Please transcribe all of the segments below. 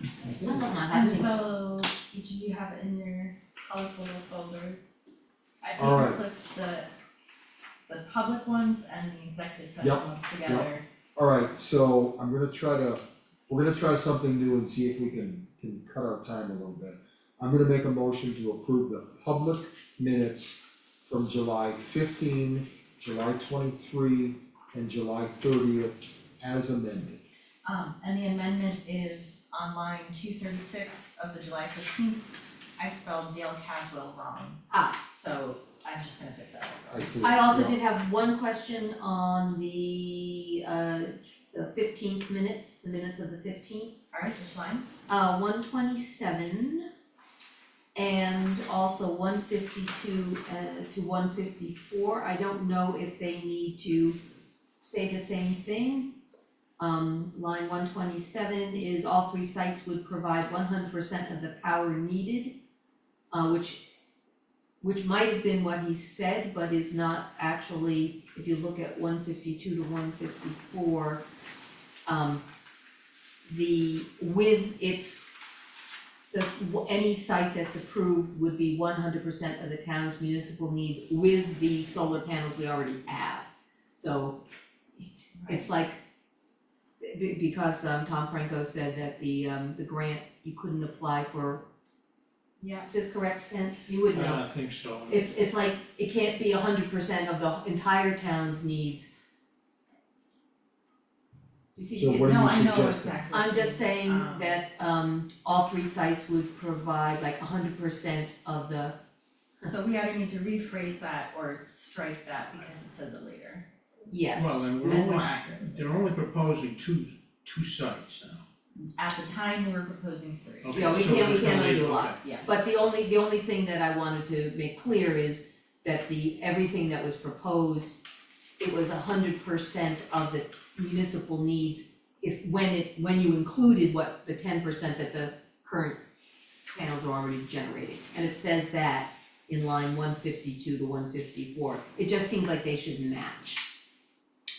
Mm. So each of you have it in your colorful little folders. I think I Alright. clicked the the public ones and the executive session Yep, ones yep. together. Alright, so I'm gonna try to, we're gonna try something new and see if we can can cut our time a little bit. I'm gonna make a motion to approve the public minutes from July fifteen, July twenty-three, and July thirtieth as amended. Um, and the amendment is on line two thirty-six of the July fifteenth. I spelled Dale Caswell wrong. Ah. So I'm just gonna fix that real I quick. see. I also Yeah. did have one question on the uh the fifteenth minutes, the minutes of the fifteenth, Alright, which line? uh one twenty seven. And also one fifty two uh to one fifty four, I don't know if they need to say the same thing. Um line one twenty seven is all three sites would provide one hundred percent of the power needed. Uh which which might have been what he said, but is not actually, if you look at one fifty-two to one fifty-four, um, the, with its, this, any site that's approved would be one hundred percent of the town's municipal needs with the solar panels we already have. So it's, it's like, be- because, um, Tom Franco said that the, um, the grant, you couldn't apply for, Yeah, is this correct, Ken? You would know. Uh, I think so. It's it's like, it can't be hundred percent of the entire town's needs. You see, So it- What are no, you I know suggesting? exactly. I'm just saying Um, that um all three sites would provide like hundred percent of the, So we either need to rephrase that or strike that because it says it later. yes. Well, then we're And more only, accurate. they're only proposing two, two sites now. At the time, we were proposing three. Okay, Yeah, we so can't- we it's can't gonna undo be- a lot. okay. Yeah. But the only, the only thing that I wanted to make clear is that the, everything that was proposed, it was hundred percent of the municipal needs if, when it, when you included what, the ten percent that the current panels are already generating. And it says that in line one fifty-two to one fifty-four. It just seems like they should match.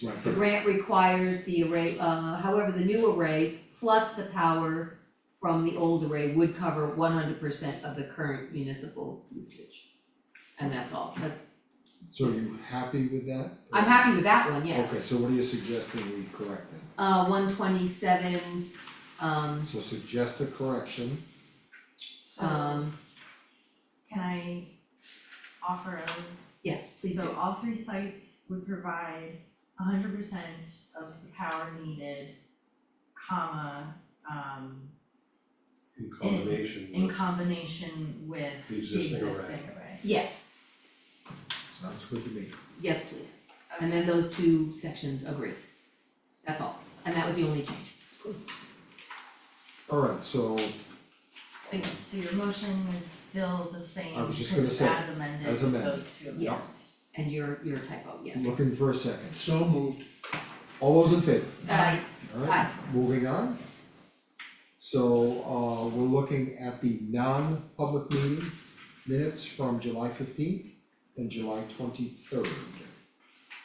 Right, The but grant requires the array, uh, however, the new array plus the power from the old array would cover one hundred percent of the current municipal usage. And that's all, but so are you happy with that? I'm happy with that one, yes. Okay, so what are you suggesting we correct then? Uh, one twenty-seven, um, So suggest a correction, So um, can I offer a yes, please do. So all three sites would provide hundred percent of the power needed, comma, um, In combination in with, combination with the The existing array. existing array. Yes, sounds good to me. yes, please. And then those two sections agree. That's all, and that was the only change. Alright, so So so your motion is still the same, I was just because gonna it's say, as amended, as with amended. those two amendments. Yes. And your, your typo, yes. looking for a second. So moved. All those in favor? Uh, Alright, moving on. So uh we're looking at the non-public meeting minutes from July fifteenth and July twenty-third.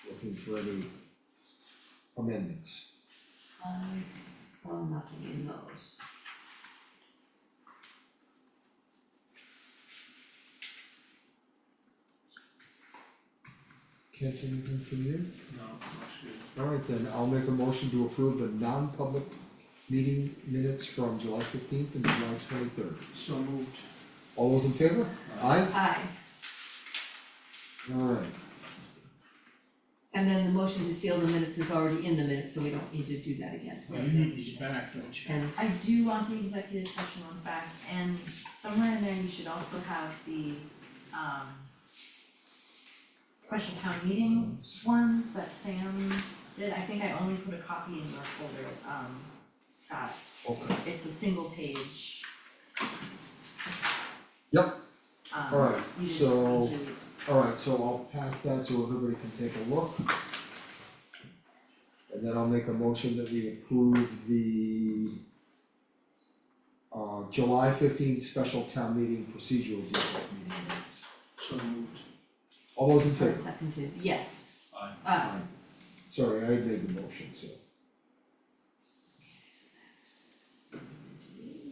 Looking for any amendments. I saw nothing in those. Can't see anything from you? No, that's good. Alright then, I'll make a motion to approve the non-public meeting minutes from July fifteenth and July twenty-third. So moved. All those in favor? Aye? Aye, Alright, and then the motion to seal the minutes is already in the minutes, so we don't need to do that again. Well, you need these back, don't you? And, I do want the executive session ones back, and somewhere in there you should also have the, um, special town meeting ones that Sam did, I think I only put a copy in your folder, um, Scott, okay, it's a single page. Yep. Um, Alright, you just so- need to- alright, so I'll pass that so everybody can take a look. And then I'll make a motion that we approve the uh July fifteenth special town meeting procedural district meeting minutes. So moved. All those in for a favor? second to, yes. Aye. Aye. Sorry, I made the motion, so.